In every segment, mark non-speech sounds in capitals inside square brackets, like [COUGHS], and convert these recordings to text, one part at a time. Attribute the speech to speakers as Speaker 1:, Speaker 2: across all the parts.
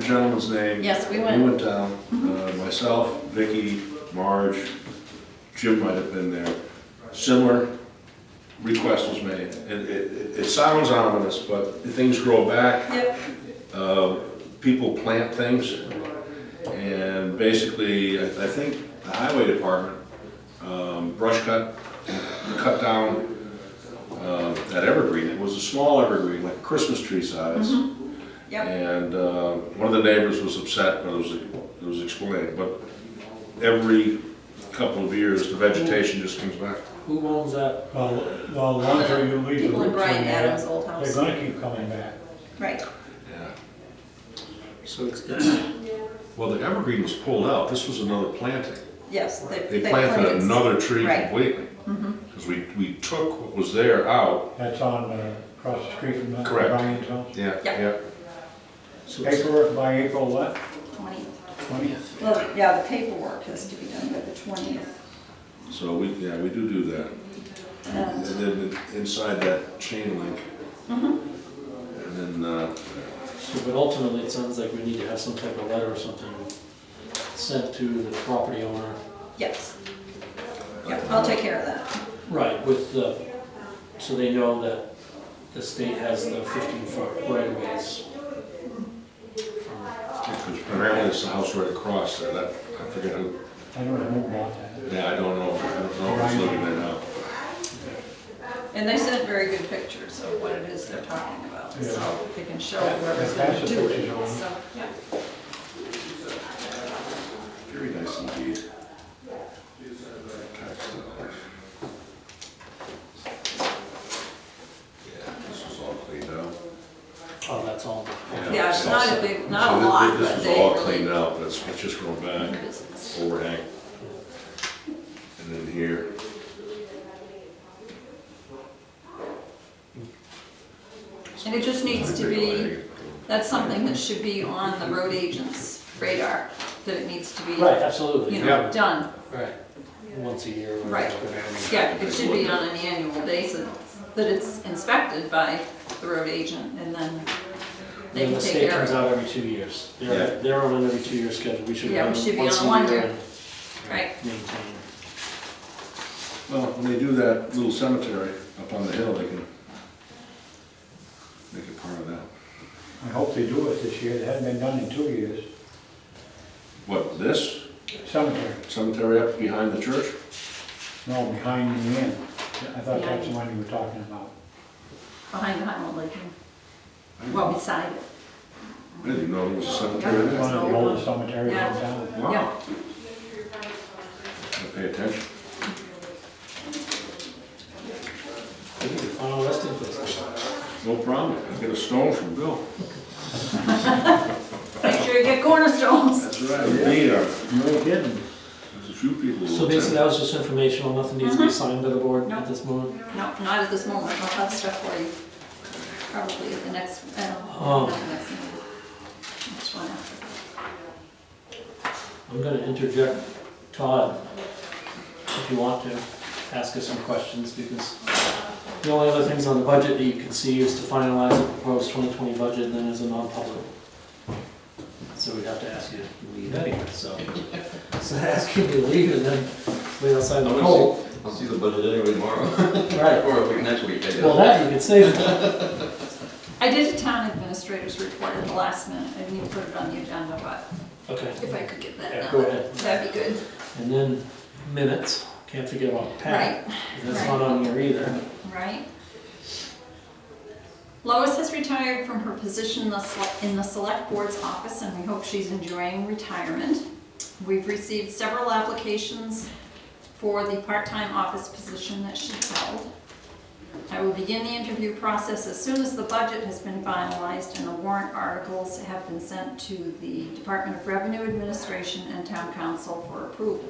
Speaker 1: gentleman's name.
Speaker 2: Yes, we
Speaker 1: We
Speaker 2: went. Mm-hmm.
Speaker 1: went down, uh, myself, Vicky, Marge, Jim might have been there. Similar request was made. It, it, it- it sounds ominous, but things grow back,
Speaker 2: Yep,
Speaker 1: uh, people plant things. And basically, I I think the highway department, um, brush cut, cut down, uh, that evergreen. It was a small evergreen, like Christmas tree
Speaker 2: Mm-hmm.
Speaker 1: size.
Speaker 2: yep.
Speaker 1: And uh, one of the neighbors was upset, but it was, it was explained, but every couple of years, the vegetation just comes back.
Speaker 3: Who owns that?
Speaker 4: Well, the longer you leave the
Speaker 2: People in
Speaker 4: roots in
Speaker 2: Brian Adams'
Speaker 4: there,
Speaker 2: old
Speaker 4: they're
Speaker 2: house.
Speaker 4: gonna keep coming back.
Speaker 2: Right,
Speaker 1: Yeah. So it's, it's, [CLEARS THROAT] well, the evergreen was pulled out, this was another planting.
Speaker 2: yes.
Speaker 1: They planted Mm-hmm. another tree
Speaker 2: Right.
Speaker 1: completely. Because we, we took what was there out.
Speaker 4: That's on, uh, across the street from the
Speaker 1: Correct.
Speaker 4: Brian's house.
Speaker 1: Yeah,
Speaker 2: Yeah.
Speaker 4: Paperwork by April what,
Speaker 2: Twentieth.
Speaker 4: twentieth?
Speaker 2: Well, yeah, the paperwork has to be done by the twentieth.
Speaker 1: So we, yeah, we do do that. And
Speaker 2: Um,
Speaker 1: then inside that chain link. And then, uh,
Speaker 3: But ultimately, it sounds like we need to have some type of letter or something sent to the property owner.
Speaker 2: Yes. Yeah, I'll take care of that.
Speaker 3: Right, with the, so they know that the state has the fifteen foot right of ways.
Speaker 1: Because primarily it's the house right across there, that, I forget who,
Speaker 4: I don't remember about that.
Speaker 1: yeah, I don't know, I don't know who's living there now.
Speaker 2: And they sent very good pictures of what it is they're talking about, so they can show whoever's
Speaker 4: That's
Speaker 2: gonna
Speaker 4: the
Speaker 2: do
Speaker 4: pictures
Speaker 2: it,
Speaker 4: on.
Speaker 2: so, yeah.
Speaker 1: Very nice indeed. Yeah, this was all cleaned out.
Speaker 3: Oh, that's all.
Speaker 2: Yeah, it's not a big,
Speaker 1: So
Speaker 2: not
Speaker 1: thi-
Speaker 2: a
Speaker 1: thi-
Speaker 2: lot,
Speaker 1: This
Speaker 2: but
Speaker 1: was
Speaker 2: they
Speaker 1: all
Speaker 2: really.
Speaker 1: cleaned out, but it's, it's just grown back, overhang. And then here.
Speaker 2: And it just needs to be, that's something that should be on the road agent's radar, that it needs to be,
Speaker 3: Right, absolutely.
Speaker 2: you know, done.
Speaker 3: Right, once a year. or
Speaker 2: Right.
Speaker 3: whatever.
Speaker 2: Yeah, it should be on an annual basis, that it's inspected by the road agent, and then they can
Speaker 3: And the
Speaker 2: take
Speaker 3: state
Speaker 2: care of
Speaker 3: comes
Speaker 2: it.
Speaker 3: out every two years.
Speaker 1: Yeah.
Speaker 3: They're, they're on an every two year schedule, we should
Speaker 2: Yeah,
Speaker 3: have
Speaker 2: we should be
Speaker 3: one once
Speaker 2: on one
Speaker 3: a year
Speaker 2: year.
Speaker 3: and
Speaker 2: Right,
Speaker 3: maintain.
Speaker 1: Well, when they do that little cemetery up on the hill, they can make it part of that.
Speaker 4: I hope they do it this year, it hadn't been done in two years.
Speaker 1: What, this
Speaker 4: Cemetery,
Speaker 1: cemetery up behind the church?
Speaker 4: no, behind the inn. I thought that's the one you were talking about.
Speaker 2: behind the Highland Lake, well, beside it.
Speaker 1: I didn't even know there was a cemetery
Speaker 4: It's
Speaker 1: there.
Speaker 4: one of the oldest cemeteries in town.
Speaker 2: Yeah.
Speaker 1: Wow. I Pay attention.
Speaker 3: We need to find a resting place.
Speaker 1: No problem. I get a stone from Bill.
Speaker 2: Make sure you get cornerstones.
Speaker 1: That's right. Indeed, uh,
Speaker 4: No kidding.
Speaker 1: there's a few people. who
Speaker 3: So basically,
Speaker 1: attend.
Speaker 3: that was just informational, nothing needs to be signed by the board at this moment.
Speaker 2: Uh-huh. No, not at this moment, I'll have stuff for you, probably at the next, uh,
Speaker 3: Oh.
Speaker 2: not the next meeting. Next one after.
Speaker 3: I'm gonna interject Todd, if you want to, ask us some questions, because the only other things on the budget that you can see is to finalize the proposed 2020 budget, and then as a non-public. So we'd have to ask you to leave anyway, so, so ask you to leave and then wait outside in the cold.
Speaker 5: I'll see the budget anyway tomorrow, [LAUGHS]
Speaker 3: Right,
Speaker 5: or we can next week, I guess.
Speaker 3: well, that you can save,
Speaker 2: I did a town administrator's report at the last minute, I didn't even put it on the agenda, but
Speaker 3: okay,
Speaker 2: if I could get
Speaker 3: Yeah,
Speaker 2: that
Speaker 3: go
Speaker 2: done,
Speaker 3: ahead.
Speaker 2: that'd be good.
Speaker 3: and then minutes, can't forget about Pat, that's not on here either.
Speaker 2: Right? Lois has retired from her position in the sele- in the Select Board's office, and we hope she's enjoying retirement. We've received several applications for the part-time office position that she held. I will begin the interview process as soon as the budget has been finalized and the warrant articles have been sent to the Department of Revenue Administration and Town Council for approval.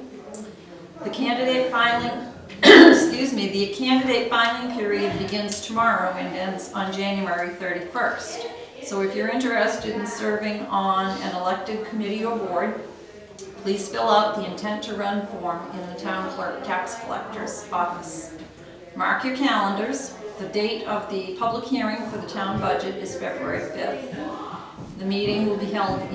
Speaker 2: The candidate filing, [COUGHS] excuse me, the candidate filing period begins tomorrow and ends on January 31st. So if you're interested in serving on an elected committee or board, please fill out the intent to run form in the town clerk tax collector's office. Mark your calendars. The date of the public hearing for the town budget is February 5th. The meeting will be held